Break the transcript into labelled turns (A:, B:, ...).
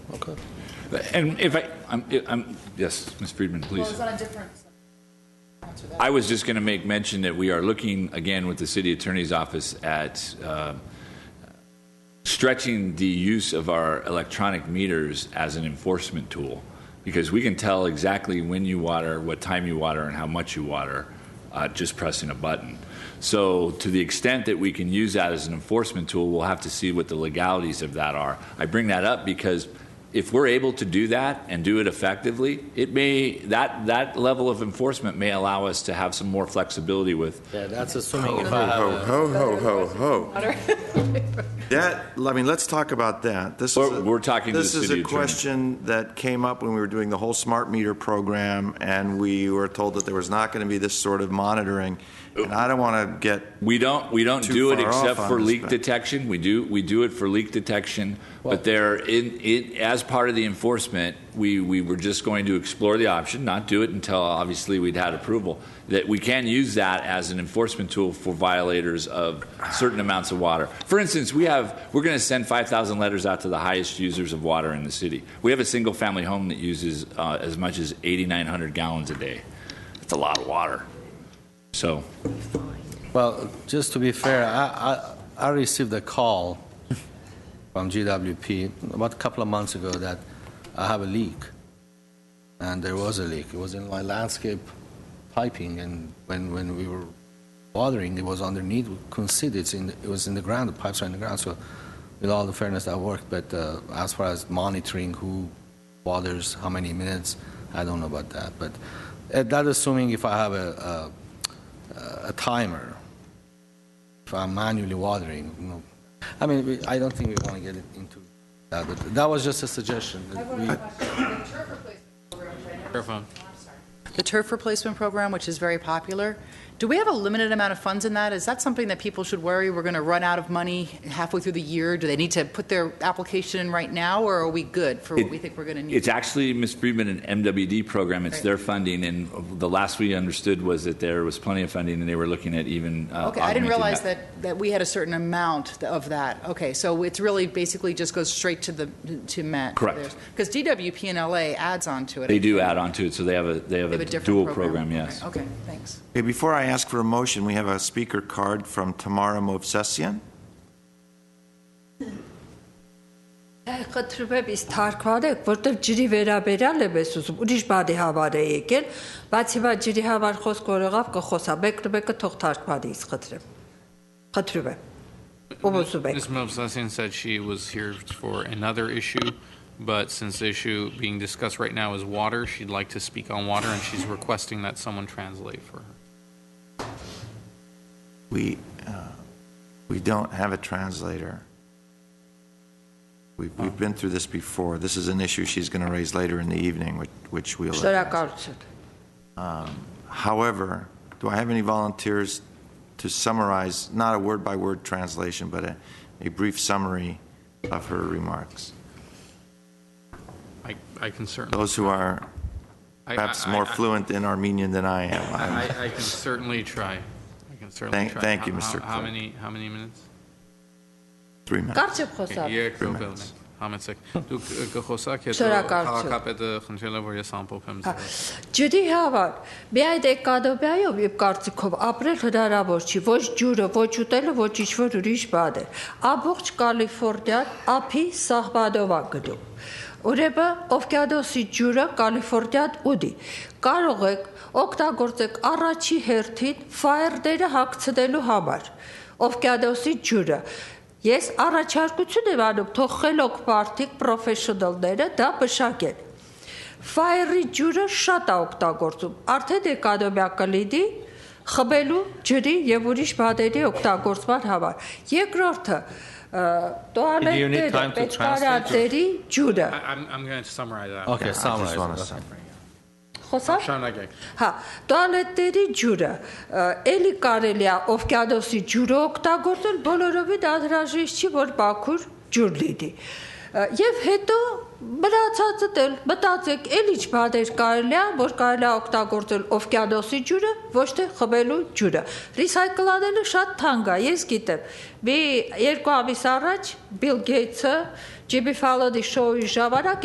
A: Okay.
B: And if I, I'm, I'm, yes, Ms. Friedman,
C: Well,
B: please.
C: it's on a different. Answer that.
B: I was just going to make mention that we are looking again with the city attorney's office at uh, stretching the use of our electronic meters as an enforcement tool because we can tell exactly when you water, what time you water, and how much you water uh, just pressing a button. So, to the extent that we can use that as an enforcement tool, we'll have to see what the legalities of that are. I bring that up because if we're able to do that and do it effectively, it may that that level of enforcement may allow us to have some more flexibility with
D: Yeah, that's assuming if
E: Ho,
D: I have
E: ho,
D: a,
E: ho, ho, ho, ho. That, I mean, let's talk about that. This is,
B: We're-
E: a-
B: we're talking to the
E: this is
B: city
E: a
B: attorney.
E: question that came up when we were doing the whole smart meter program, and we were told that there was not going to be this sort of monitoring. And I don't want to get,
B: We don't we don't
E: Too
B: do it
E: far off
B: except
E: on
B: for
E: this,
B: leak
E: but-
B: detection. We do we do it for leak detection, but there in it as part of the enforcement, we we were just going to explore the option, not do it until obviously we'd had approval that we can use that as an enforcement tool for violators of certain amounts of water. For instance, we have we're going to send 5,000 letters out to the highest users of water in the city. We have a single family home that uses uh, as much as 8900 gallons a day. That's a lot of water. So,
D: well, just to be fair, I, I, I received a call from GWP about a couple of months ago that I have a leak. And there was a leak. It was in my landscape piping and when, when we were watering, it was underneath. We couldn't see it. It's in, it was in the ground, the pipes are in the ground. So with all the fairness, that worked. But uh, as far as monitoring who waters, how many minutes, I don't know about that. But uh, that assuming if I have a, a, a timer, if I'm manually watering, you know. I mean, we, I don't think we want to get into that, but that was just a suggestion.
C: I
D: that
C: have
D: we-
C: one question. The turf replacement program, which I never- I'm sorry. The turf replacement program, which is very popular, do we have a limited amount of funds in that? Is that something that people should worry, we're going to run out of money halfway through the year? Do they need to put their application in right now, or are we good for what we think we're going to need?
B: It's actually, Ms. Friedman, an MWD program. It's their funding, and the last we understood was that there was plenty of funding, and they were looking at even uh,
C: Okay, I
B: augmenting
C: didn't realize that, that we had a certain amount of that. Okay, so it's really basically just goes straight to the, to Met.
B: Correct.
C: Because DWP and LA adds on to it.
B: They do add on to it, so they have a, they have
C: They
B: a
C: have a different
B: dual
C: program.
B: program, yes.
C: Okay, okay, thanks.
E: Hey, before I ask for a motion, we have a speaker card from Tamara Movsesian.
F: Խտրուպեմ իս թարգմանեք, որտեվ ջրի վերաբերյալ եմ ես ուզում, ուրիշ բանի համար է եկել, բայց հիմա ջրի համար խոսք օրողավ կխոսա, մեկը մեկը թող թարգմանի իս խտրեմ։ Խտրուպեմ։ Ում ուզում եք։
G: Ms. Mobsessian said she was here for another issue, but since the issue being discussed right now is water, she'd like to speak on water, and she's requesting that someone translate for her.
E: We, uh, we don't have a translator. We've, we've been through this before. This is an issue she's going to raise later in the evening, which, which we'll. address.
F: Շնորհակալություն։
E: However, do I have any volunteers to summarize, not a word-by-word translation, but a, a brief summary of her remarks?
G: I, I can certainly,
E: Those who are
G: I- I-
E: perhaps more
G: I- I-
E: fluent in Armenian than I am. I'm-
G: I, I can certainly try. I can certainly
E: Thank-
G: try.
E: thank you,
G: How-
E: Mr.
G: How how
E: Clerk.
G: many, how many minutes?
E: Three minutes.
F: Կարճ խոսա։
G: Okay, երեք
E: Three
G: րոպե
E: minutes.
G: ունենք, համեցեք։ Դուք ը, կխոսաք, հետո
F: Շնորհակալություն։
G: քաղաքապետը խնդրել է, որ ես ամփոփեմ
F: Ah.
G: ձեզ։
F: Հա, Ջրի համար միայն էկադոմիայով եւ կարծիքով ապրել հնարավոր չի, ոչ ջուրը, ոչ ուտելը, ոչ ինչ որ ուրիշ բան է։ Ամբողջ Կալիֆոռնիան ափի սահմանով է գնում։ Ուրեմն օվկիանոսի ջուրը Կալիֆոռնիան ուտի։ Կարող եք օգտագործեք առաջի հերթին ֆայերները հագցնելու համար օվկիանոսի ջուրը։ Ես առաջարկություն եմ անում թող խելոք բարդիկ պրոֆեսիոնալները դա բշակեն։ Ֆայերի ջուրը շատ է օգտագործում։ Արդեն դեկադոմյա կլիդի խմելու ջրի եւ ուրիշ բաների օգտագործման համար։ Երկրորդը ը,
D: need
F: տոալետները,
D: time to
F: պետքարանների ջուրը։
G: I- I'm, I'm going to summarize that.
D: Okay, summarize.
E: Just want
D: it.
E: a summary.
F: Խոսա՞ր։
G: Շարունակեք։
F: Հա, տոալետների ջուրը, ը, էլի կարելի է օվկիանոսի ջուրը օգտագործել, բոլորովին անհրաժեշտ չի, որ Բաքուր ջուր լինի։ Ը, Եվ հետո մնացածը դել մտածեք, էլ ինչ բաներ կարելի է, որ կարելի է օգտագործել օվկիանոսի ջուրը, ոչ թե խմելու ջուրը։ Ռիսայկլանելը շատ թանկ է, ես գիտեմ։ Մի երկու ամիս առաջ Bill Gates-ը Ջիբի Ֆալոդի շոուի ժամանակ